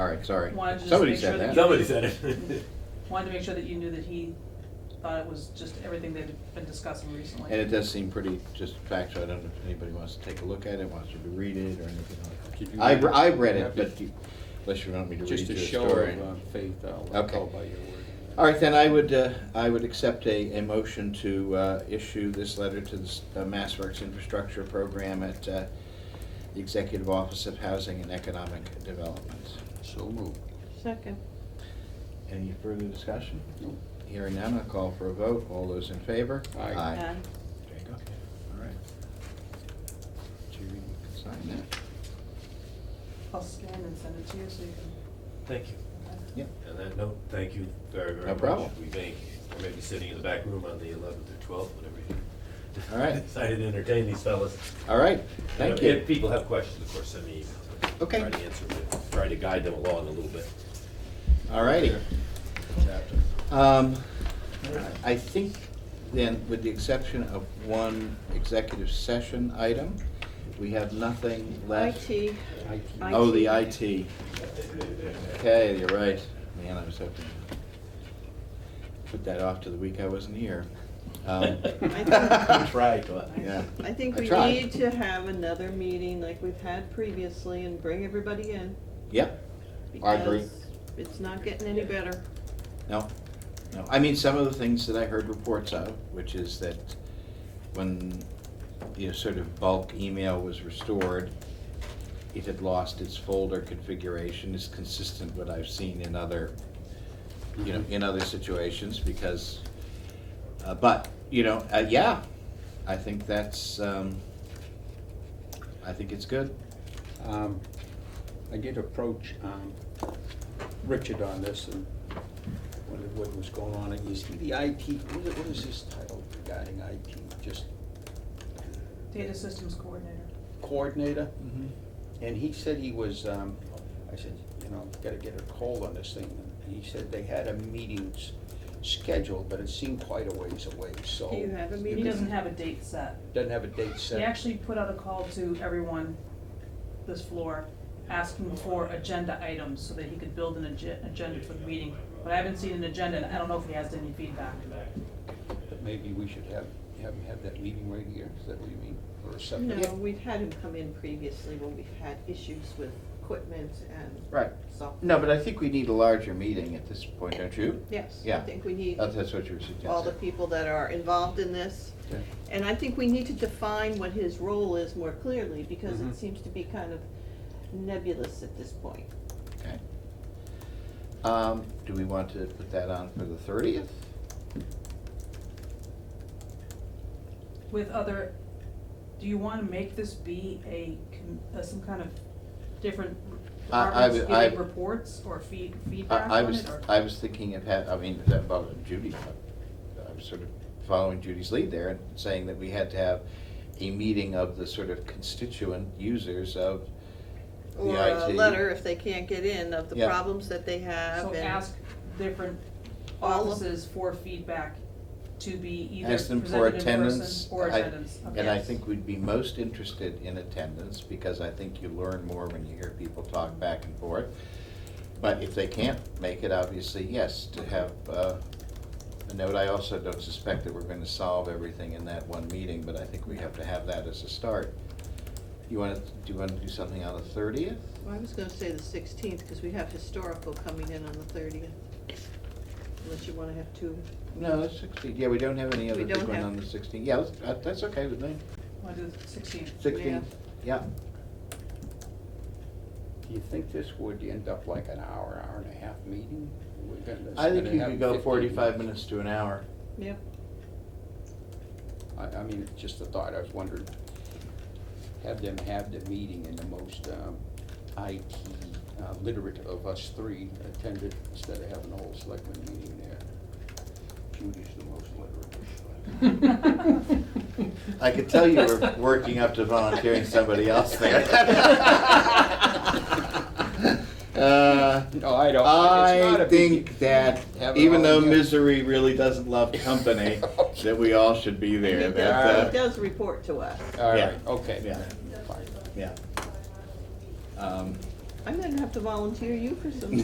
Sorry, sorry. Wanted to just Somebody make said sure that. that Somebody said it. Wanted to make sure that you knew that he thought it was just everything they'd been discussing recently. And it does seem pretty, just factual, I don't know if anybody wants to take a look at it, wants to read it or anything like Could that. you I, read it? I read it, Yeah. but you- unless you want me to read Just you a a show of story. uh, faith, I'll I'll Okay. call by your word. All right, then I would, uh, I would accept a, a motion to uh, issue this letter to the s- uh, Mass Works Infrastructure Program at uh, the Executive Office of Housing and Economic Development. So moved. Second. Any further discussion? Nope. Hearing none, I'll call for a vote. All those in favor? Aye. Aye. There you go. All right. Judy, you can sign that. I'll scan and send it to you so you can. Thank you. Yep. On that note, thank you very, very No much. problem. We may, we may be sitting in the back room on the eleventh or twelfth, whatever you. All right. Decided to entertain these fellas. All right, thank If- you. If people have questions, of course, send me emails. Okay. Try to answer them, try to guide them along a little bit. All righty. Um, I think then, with the exception of one executive session item, we have nothing left. IT. Oh, the IT. Okay, you're right. Man, I was hoping to put that off to the week I wasn't here. Um, I Tried, but. Yeah. I think I we tried. need to have another meeting like we've had previously and bring everybody in. Yep, I agree. because It's not getting any better. no, no. I mean, some of the things that I heard reports of, which is that when, you know, sort of bulk email was restored, it had lost its folder configuration, is consistent with what I've seen in other, you know, in other situations, because, uh, but, you know, uh, yeah, I think that's, um, I think it's good. Um, I did approach um, Richard on this and wondered what was going on. And Is he the IT, what is- what is his title regarding IT? Just Data systems coordinator. coordinator? And he said he was, um, I said, you know, gotta get a hold on this thing. And he said they had a meeting s- scheduled, but it seemed quite a ways away, so. Do you have you a He meeting? can- doesn't have a date set. Doesn't have a date He set. actually put out a call to everyone this floor, asking for agenda items so that he could build an agen- agenda for the meeting. But I haven't seen an agenda and I don't know if he has any feedback. But Maybe we should have, have him have that meeting right here, is that what you mean? Or a separate? No, we've had him come in previously when we've had issues with equipment and Right. software. No, but I think we need a larger meeting at this point, don't you? Yes, I Yeah. think we need That's, that's what you were suggesting. all the people that are involved in this. Okay. And I think we need to define what his role is more clearly, because Mm-hmm. Mhm. it seems to be kind of nebulous at this point. Okay. Um, do we want to put that on for the thirtieth? With other, do you wanna make this be a, com- uh, some kind of different I- I departments would- I- giving reports or feed, feedback I, I on was, it or? I was thinking of had, I mean, that about Judy, I- I was sort of following Judy's lead there and saying that we had to have a meeting of the sort of constituent users of the Or a IT. letter, if they can't get in, of the Yeah. problems that they have So and- ask different All of- offices for feedback to be either Ask them for presented in attendance. person or I- attendance. Okay. And I think we'd be most interested in attendance, because I think you learn more when you hear people talk back and forth. But if they can't make it, obviously, yes, to have uh, a note. I also don't suspect that we're gonna solve everything in that one meeting, but I think we have to have that as a start. You wanna, do you wanna do something on the thirtieth? Well, I was gonna say the sixteenth, because we have historical coming in on the thirtieth. Unless you wanna have two, No, the sixteenth, yeah, we don't have any We other don't big one have- on the sixteenth. Yeah, let's- uh, that's okay with me. Wanna do the 16th? Sixteenth, yeah. Do you think this would end up like an hour, hour and a half meeting? We're gonna- I think gonna you have could go 15 forty-five minutes to an hour. yep, I, I mean, it's just a thought, I was wondering, have them have the meeting and the most um, IT uh, literate of us three attended instead of having a whole selectman meeting there. Judy's the most literate. I could tell you were working up to volunteering somebody else there. Uh, No, Oh, I don't. It's I not a big deal. think that Have it even all though in here. misery really doesn't love company, that we all should be he there. does, he That, uh, does report to us. All Yeah. right, okay. Yeah. fine. Yeah. Um, I'm gonna have to volunteer you for some